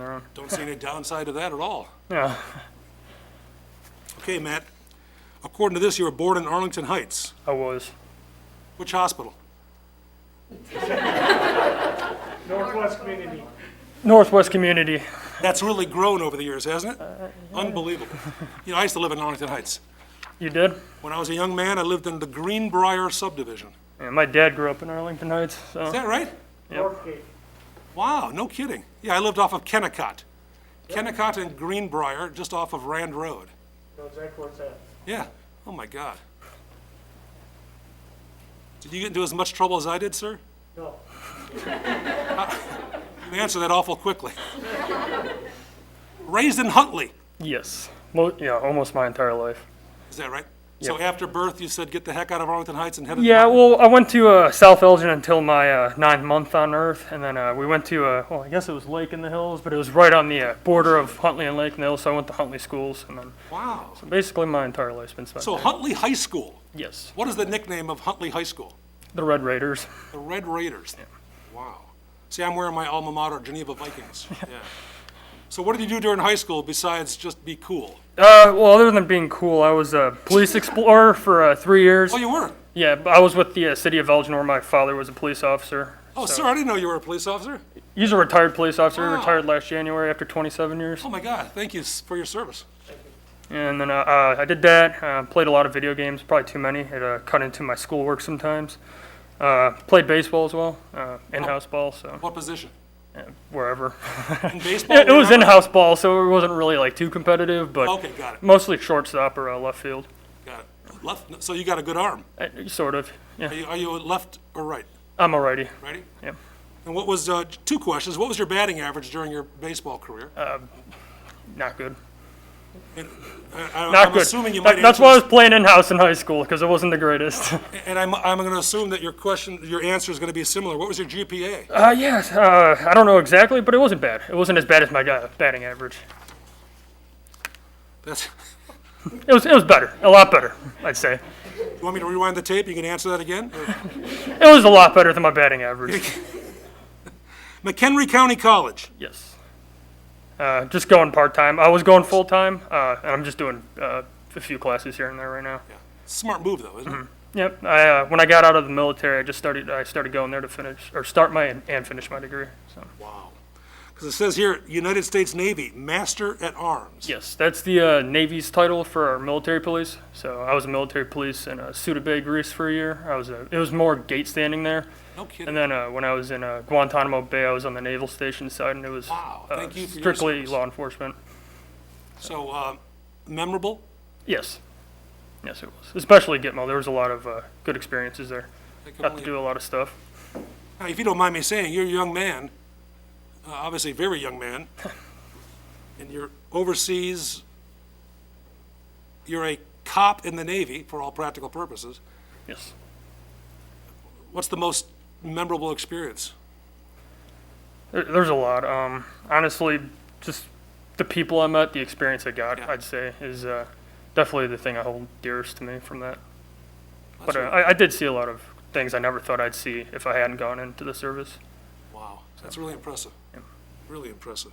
down. Don't see any downside to that at all. No. Okay, Matt, according to this, you were born in Arlington Heights. I was. Which hospital? Northwest Community. Northwest Community. That's really grown over the years, hasn't it? Unbelievable. You know, I used to live in Arlington Heights. You did? When I was a young man, I lived in the Greenbrier subdivision. Yeah, my dad grew up in Arlington Heights, Is so that right? Northgate. Wow, no kidding. Yeah, I lived off of Kennecott. Kennecott and Greenbrier, just off of Rand Road. Know exactly where it's at. Yeah, oh my God. Did you get into as much trouble as I did, sir? No. You answer that awful quickly. Raised in Huntley, yes. Mo- yeah, almost my entire life. is that right? So after birth, you said, "Get the heck out of Arlington Heights and headed..." Yeah, well, I went to uh, South Elgin until my uh, ninth month on Earth, and then uh, we went to, uh, well, I guess it was Lake in the Hills, but it was right on the uh, border of Huntley and Lake in the Hills, so I went to Huntley schools, and then Wow. basically my entire life's been spent So there. Huntley High School, Yes, what is the nickname of Huntley High School? the Red Raiders. The Red Raiders. Wow. See, I'm wearing my alma mater, Geneva Vikings. Yeah. So what did you do during high school besides just be cool? Uh, well, other than being cool, I was a police explorer for uh, three years. Oh, you were? Yeah, but I was with the uh, city of Elgin, where my father was a police officer. Oh, sir, I didn't know you were a police officer. He's a retired police officer. Wow. Retired last January after 27 years. Oh, my God. Thank you s- for your service. And then uh, uh, I did that. Uh, played a lot of video games, probably too many. It uh, cut into my schoolwork sometimes. Uh, played baseball as well, uh, in-house ball, so What position? wherever. Oh. In baseball? it, it was wherever? in-house ball, so it wasn't really like too competitive, but Okay, got it. mostly shortstop or uh, left field, Got it. Left, so you got a good arm. uh, sort of. Yeah, Are you, are you left or right? I'm alrighty. Righty? Yep. And what was, uh, two questions. What was your batting average during your baseball career? Uh, Not good. And I- I- Not I'm good. assuming you That- might that's answer why I this- was playing in-house in high school because it wasn't the greatest. And I'm, I'm going to assume that your question, your answer is going to be similar. What was your GPA? Uh, yes. Uh, I don't know exactly, but it wasn't bad. It wasn't as bad as my guy batting average. That's, It was. It was better. A lot better, I'd say. you want me to rewind the tape? You can answer that again? Or- It was a lot better than my batting average. McHenry County College. yes. Uh, just going part time. I was going full time, uh, and I'm just doing uh, a few classes here and there right now. Smart move, though, isn't it? Yep. I, uh, when I got out of the military, I just started. I started going there to finish or start my and finish my degree. So Wow. Because it says here, United States Navy, Master at Arms. yes, that's the uh, Navy's title for our military police. So I was a military police in uh, Suda Bay, Greece, for a year. I was. A, it was more gate standing there. No And kidding. then uh, when I was in uh, Guantanamo Bay, I was on the naval station side, and it was Wow, uh, thank you for your strictly service. law enforcement. So, uh, memorable? Yes, yes, it was. Especially Gitmo, there was a lot of uh, good experiences there. I can Got only- to do a lot of stuff. Now, if you don't mind me saying, you're a young man, uh, obviously a very young man, and you're overseas. You're a cop in the Navy for all practical purposes. Yes. What's the most memorable experience? There, there's a lot. Um, honestly, just the people I met, the experience I got, Yeah. I'd say, is uh, definitely the thing I hold dearest to me from that. That's But uh, right. I, I did see a lot of things I never thought I'd see if I hadn't gone into the service. Wow, that's really impressive. Really impressive.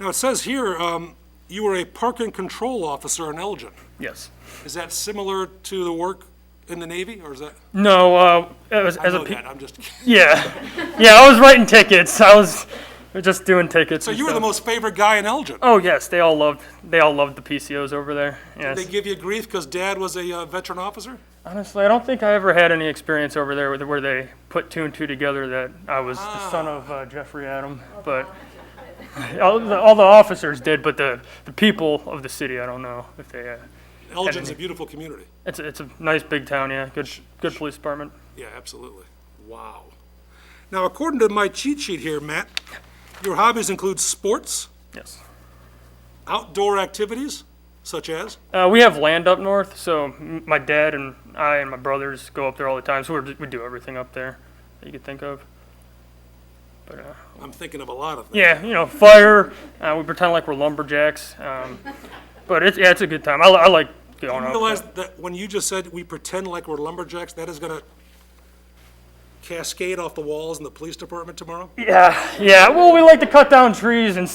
Now, it says here, um, you were a park and control officer in Elgin. Yes. Is that similar to the work in the Navy, or is that? No, uh, as, I as a know pe- that, I'm just kidding. Yeah, yeah. I was writing tickets. I was just doing tickets. So and you were the stuff. most favored guy in Elgin. Oh yes, they all loved. They all loved the PCOs over there. Yes. They give you grief because dad was a uh, veteran officer? Honestly, I don't think I ever had any experience over there where, where they put two and two together that I was Ah. the son of uh, Jeffrey Adam. But all the, all the officers did, but the, the people of the city, I don't know if they. Uh, Elgin's a beautiful community. it's a- it's a nice big town. Yeah, good good police department. Yeah, absolutely. Wow. Now, according to my cheat sheet here, Matt, your hobbies include sports, Yes. outdoor activities, such as? Uh, we have land up north, so m- my dad and I and my brothers go up there all the time. So we're, we do everything up there that you could think of. But uh, I'm thinking of a lot of them. yeah, you know, fire. Uh, we pretend like we're lumberjacks. Um, but it's yeah, it's a good time. I, li- I like going You up. realize there. that when you just said we pretend like we're lumberjacks, that is gonna cascade off the walls in the police department tomorrow? Yeah, yeah. Well, we like to cut down trees and